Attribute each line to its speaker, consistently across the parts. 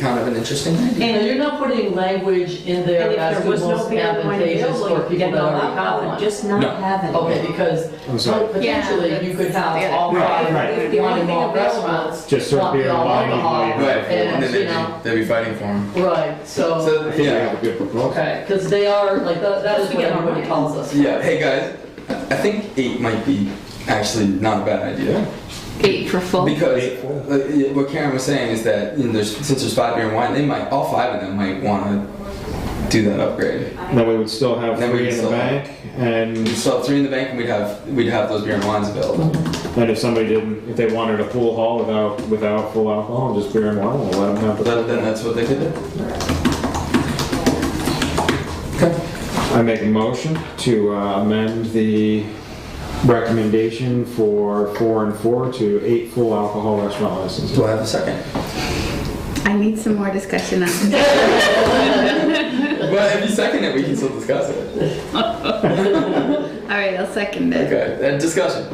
Speaker 1: kind of an interesting idea.
Speaker 2: And you're not putting language in there
Speaker 3: And if
Speaker 2: as
Speaker 3: there
Speaker 2: the
Speaker 3: was
Speaker 2: most
Speaker 3: no bigger one
Speaker 2: advantageous for
Speaker 3: available, you
Speaker 2: people
Speaker 3: could
Speaker 2: that already
Speaker 3: allow,
Speaker 2: have
Speaker 3: I would
Speaker 2: one.
Speaker 3: just not
Speaker 1: No.
Speaker 3: have it.
Speaker 2: Okay, because
Speaker 1: I'm sorry.
Speaker 4: Yeah,
Speaker 2: potentially you could have
Speaker 4: that's-
Speaker 2: all
Speaker 5: Right,
Speaker 2: five
Speaker 5: right.
Speaker 3: If the only thing
Speaker 2: mom
Speaker 3: available-
Speaker 2: restaurants.
Speaker 5: Just serve
Speaker 2: want the
Speaker 5: beer and
Speaker 2: all
Speaker 5: wine,
Speaker 2: alcohol,
Speaker 5: even though
Speaker 1: Right, and
Speaker 2: And,
Speaker 1: then they'd
Speaker 2: you
Speaker 1: be,
Speaker 2: know, Oh.
Speaker 1: they'd be fighting for him.
Speaker 2: right, so,
Speaker 5: I think we have a good proposal.
Speaker 2: okay, because they are, like, that that is
Speaker 3: Just to
Speaker 2: what
Speaker 3: get our
Speaker 2: everybody
Speaker 3: money.
Speaker 2: calls us.
Speaker 1: Yeah, hey guys, I I think eight might be actually not a bad idea.
Speaker 4: Eight for full.
Speaker 1: Because like, yeah, what Karen was saying is that you know, there's, since there's five beer and wine, they might, all five of them might want to do that upgrade.
Speaker 5: Then we would still have
Speaker 1: Then we
Speaker 5: three
Speaker 1: would
Speaker 5: in the
Speaker 1: still-
Speaker 5: bank, and,
Speaker 1: We'd still have three in the bank and we'd have, we'd have those beer and wines available.
Speaker 5: and if somebody didn't, if they wanted a full haul without, without full alcohol, just beer and wine, we'll let them have
Speaker 1: But then,
Speaker 5: the.
Speaker 1: then that's what they could do.
Speaker 5: I make a motion to uh, amend the recommendation for four and four to eight full alcohol restaurant licenses.
Speaker 1: Do I have a second?
Speaker 4: I need some more discussion on this.
Speaker 1: Well, if you second it, we can still discuss it.
Speaker 4: All right, I'll second it.
Speaker 1: Okay, and discussion.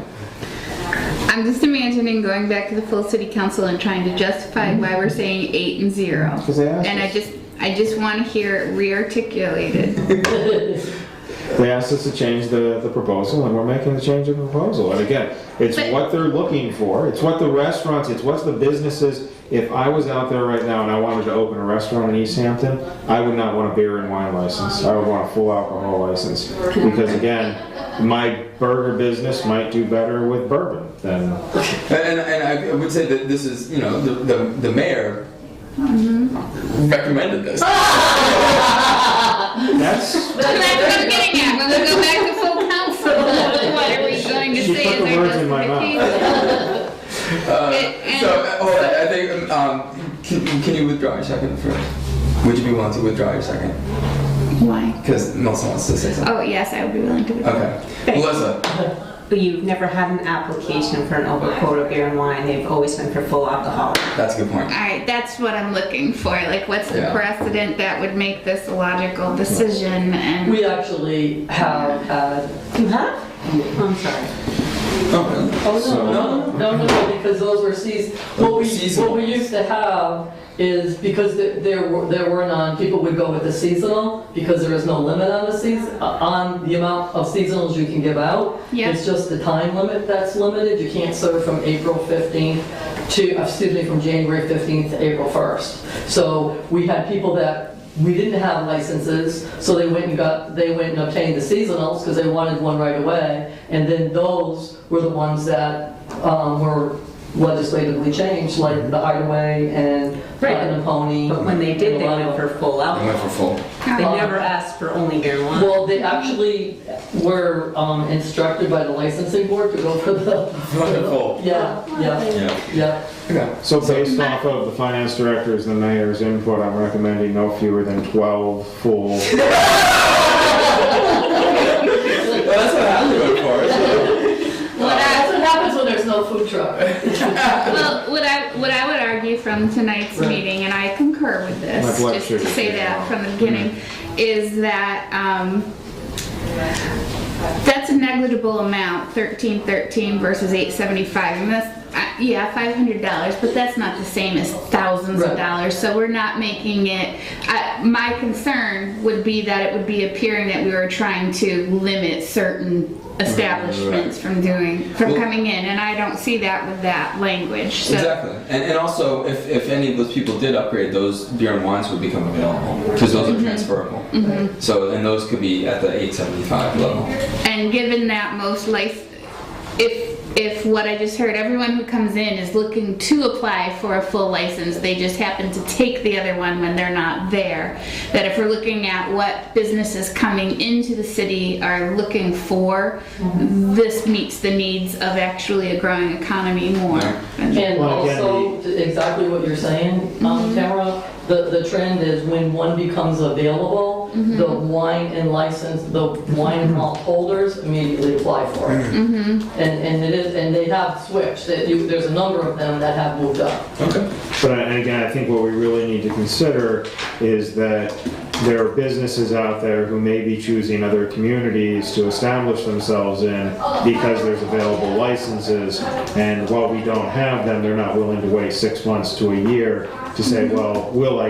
Speaker 4: I'm just imagining going back to the full city council and trying to justify why we're saying eight and zero.
Speaker 5: 'Cause they asked
Speaker 4: And I
Speaker 5: us.
Speaker 4: just, I just want to hear it re-articulated.
Speaker 5: They asked us to change the, the proposal, and we're making the change of the proposal. And again, it's
Speaker 4: But-
Speaker 5: what they're looking for, it's what the restaurants, it's what the businesses. If I was out there right now and I wanted to open a restaurant in East Hampton, I would not want a beer and wine license. I would want a full alcohol license. Because again, my burger business might do better with bourbon than,
Speaker 1: And, and, and I would say that this is, you know, the, the, the mayor recommended this.
Speaker 5: that's,
Speaker 4: That's what I'm getting at, when we go back to full council, what are we going to
Speaker 5: She
Speaker 4: say
Speaker 5: put
Speaker 4: is
Speaker 5: the
Speaker 4: our
Speaker 5: words in my mouth.
Speaker 4: justification?
Speaker 1: Uh,
Speaker 4: And-
Speaker 1: so, uh, hold on, I think, um, can, can you withdraw your second for, would you be willing to withdraw your second?
Speaker 4: Why?
Speaker 1: Because Melissa wants to say something.
Speaker 4: Oh, yes, I would be willing to.
Speaker 1: Okay. Melissa,
Speaker 3: But you've never had an application for an over quota beer and wine, they've always been for full alcohol.
Speaker 1: that's a good point.
Speaker 4: All right, that's what I'm looking for. Like, what's the
Speaker 1: Yeah.
Speaker 4: precedent that would make this a logical decision? And
Speaker 2: We actually have, had-
Speaker 3: You have? Mm-hmm. I'm sorry.
Speaker 1: Oh,
Speaker 2: oh,
Speaker 5: So-
Speaker 2: no, no, no, no, no, because those were seas, what we, what
Speaker 1: Seasonal.
Speaker 2: we used to have is, because there- there were, there were none, people would go with the seasonal, because there is no limit on the season, on the amount of seasonals you can give out.
Speaker 4: Yeah.
Speaker 2: It's just the time limit that's limited, you can't serve from April 15th to, uh, excuse me, from January 15th to April 1st. So we had people that, we didn't have licenses, so they went and got, they went and obtained the seasonals, because they wanted one right away, and then those were the ones that um, were legislatively changed, like the Hideaway and
Speaker 3: Right.
Speaker 2: Rockin' and Pony.
Speaker 3: But when they did,
Speaker 2: and
Speaker 3: they
Speaker 2: a lot of-
Speaker 3: went for full
Speaker 1: I went
Speaker 3: alcohol.
Speaker 1: for full.
Speaker 3: They never asked for only beer and wine.
Speaker 2: Well, they actually were um, instructed by the licensing board to go for the.
Speaker 1: Full.
Speaker 2: Yeah, yeah,
Speaker 1: Yeah.
Speaker 2: yeah.
Speaker 1: Okay.
Speaker 5: so based off of the finance director's and the mayor's input, I'm recommending no fewer than 12 full
Speaker 1: Well, that's what I went for.
Speaker 2: Well, that's what happens when there's no food truck.
Speaker 4: Well, what I, what I would argue from tonight's
Speaker 2: Right.
Speaker 4: meeting, and I concur with this,
Speaker 5: My blood
Speaker 4: just
Speaker 5: sugar Mm-hmm.
Speaker 4: to say
Speaker 5: is
Speaker 4: that
Speaker 5: low.
Speaker 4: from the beginning, is that, um, that's a negligible amount, thirteen thirteen versus eight seventy-five, and that's, uh, yeah, five hundred dollars, but that's not the same as thousands of
Speaker 2: Right.
Speaker 4: dollars, so we're not making it, I my concern would be that it would be appearing that we were trying to limit certain establishments from doing, from
Speaker 1: Well-
Speaker 4: coming in, and I don't see that with that language, so.
Speaker 1: Exactly. And, and also, if, if any of those people did upgrade, those beer and wines would become available because those are transferable. So, and those could be at the 875 level.
Speaker 4: And given that most life, if, if what I just heard, everyone who comes in is looking to apply for a full license, they just happen to take the other one when they're not there, that if we're looking at what businesses coming into the city are looking for, this meets the needs of actually a growing economy more.
Speaker 2: And
Speaker 5: Well, again,
Speaker 2: also, t- exactly what you're saying, um, Tamara, the, the trend is when one becomes available, the wine and license, the wine and malt holders immediately apply for it. And, and it is, and they have switched, that you, there's a number of them that have moved up.
Speaker 1: Okay.
Speaker 5: But I- and again, I think what we really need to consider is that there are businesses out there who may be choosing other communities to establish themselves in because there's available licenses. And while we don't have them, they're not willing to wait six months to a year to say, well, will I